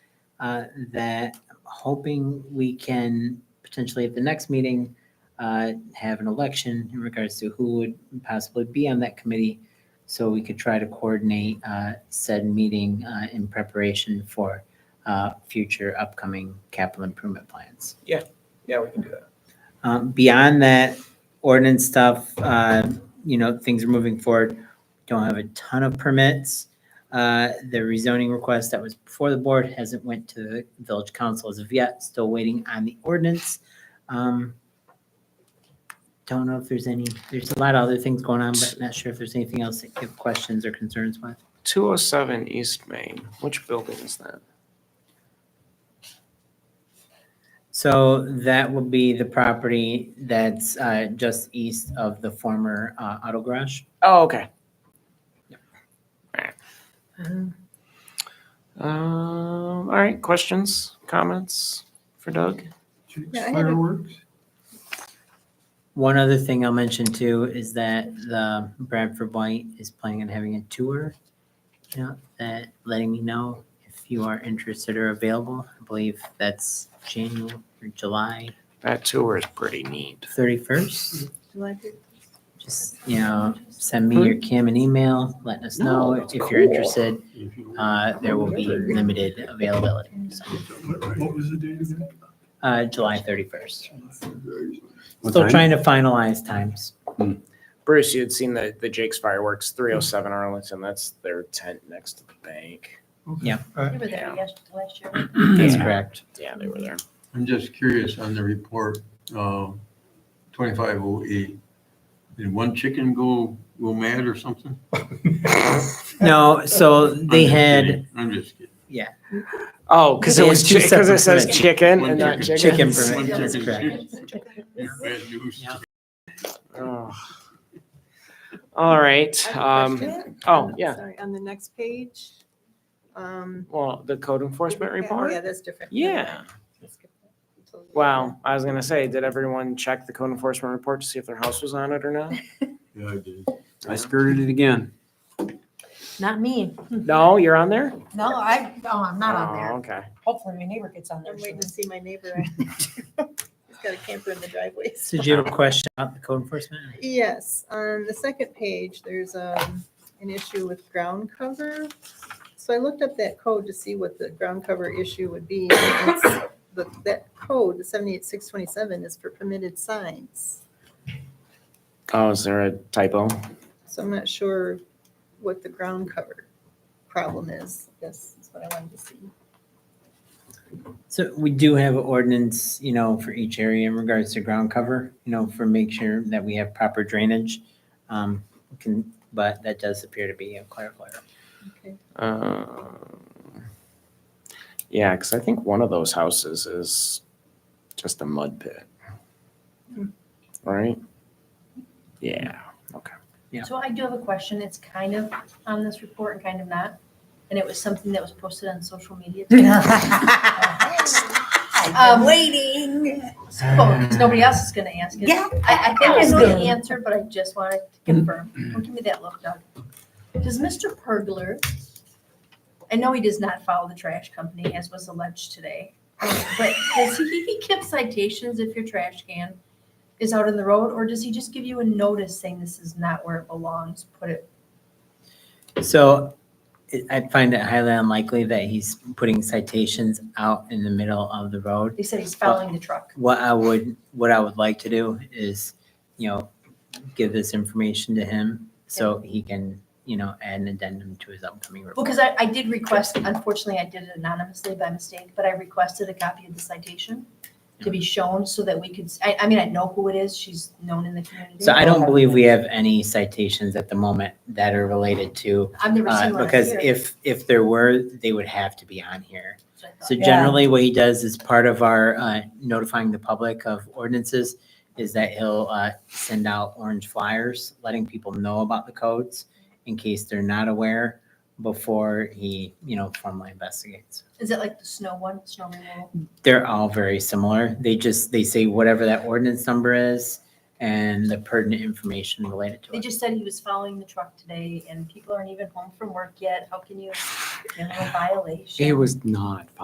uh, that I'm hoping we can potentially at the next meeting uh, have an election in regards to who would possibly be on that committee. So we could try to coordinate uh, said meeting uh, in preparation for uh, future upcoming capital improvement plans. Yeah, we can do that. Um, beyond that ordinance stuff, uh, you know, things are moving forward. Don't have a ton of permits. Uh, the rezoning request that was before the board hasn't went to the village council as of yet, still waiting on the ordinance. Um, don't know if there's any, there's a lot of other things going on, but not sure if there's anything else that you have questions or concerns with. 207 East Main, which building is that? So that will be the property that's, uh, just east of the former, uh, auto garage. Oh, okay. Alright. Um, all right, questions, comments for Doug? Yeah, I haven't- Fireworks? One other thing I'll mention too is that the Bradford White is planning on having a tour. You know, that letting me know if you are interested or available. I believe that's January or July That tour is pretty neat. thirty-first. July fifth. Just, you know, send me your cam and email, letting us know Hmm. No, that's if you're cool. interested. Uh, there will be limited availability. So, What was the date again? Uh, July thirty-first. Still trying to finalize times. Bruce, you had seen the, the Jake's fireworks, 307 Arlington, that's their tent next to the bank. Yeah. We were there yesterday, last year. That's correct. Yeah, they were there. I'm just curious on the report, um, 2508. Did one chicken go, go mad or something? No, so I'm they just had. kidding. I'm just kidding. Oh, because They it had was, two because it separate says permits. chicken One and not chicken. uh, Chicken chickens. permit. One that's chicken. correct. Bad news. Yeah. Oh. All right, um, oh, yeah, Sorry, on the next page. Um. well, the code enforcement yeah, oh, report? Yeah, that's different. Never mind. Yeah. Let's skip that. It's a little- Wow, I was gonna say, did everyone check the code enforcement report to see if their house was on it or not? Yeah, I did. I skirted it again. Not me. No, you're on there? No, I, no, I'm not on Oh, there. Okay. Hopefully my neighbor gets on there. I'm waiting to soon. see my neighbor. He's got a camper in the driveway. So do you have a question about the code enforcement? Yes, on the second page, there's um, an issue with ground cover. So I looked up that code to see what the ground cover issue would be. and it's- the- That code, the 78627, is for permitted signs. Oh, is there a typo? So I'm not sure what the ground cover problem is. This is what I wanted to see. So we do have ordinance, you know, for each area in regards to ground cover, you know, for make sure that we have proper drainage. Um, can, but that does appear to be a clarifier. Okay. Um, Yeah, because I think one of those houses is just a mud pit. Hmm. Right? Yeah. Yeah. So I do have a question. It's kind of on this report and kind of not. And it was something that was posted on social media. Oh, I've been Oh, waiting. So 'cause nobody else is gonna ask it. Yeah. I, I think I know Ask the him. answer, but I just wanted to confirm. Don't give me that look, Doug. Does Mr. Pergler, I know he does not follow the trash company as was alleged today, um, but does he, he give citations if your trash can is out in the road? Or does he just give you a notice saying this is not where it belongs? Put it So it- I find it highly unlikely that he's putting citations out in the middle of the road. They said he's following the truck. What I would, what I would like to do is, you know, give this information to him so he can, you know, add an addendum to his upcoming report. Because I, I did request, unfortunately, I did it anonymously by mistake, but I requested a copy of the citation to be shown so that we could, s- I, I mean, I know who it is. She's known in the community. So I don't believe we have any citations at the moment that are related to, I've never uh, seen one because here. if, if there were, they would have to be on here. so I thought- So Yeah. generally, what he does is part of our uh, notifying the public of ordinances is that he'll uh, send out orange flyers, letting people know about the codes in case they're not aware before he, you know, formally investigates. Is it like the snow one, snow removal? They're all very similar. They just, they say whatever that ordinance number is and the pertinent information related to They it. just said he was following the truck today and people aren't even home from work yet. How can you, you know, violation? It was not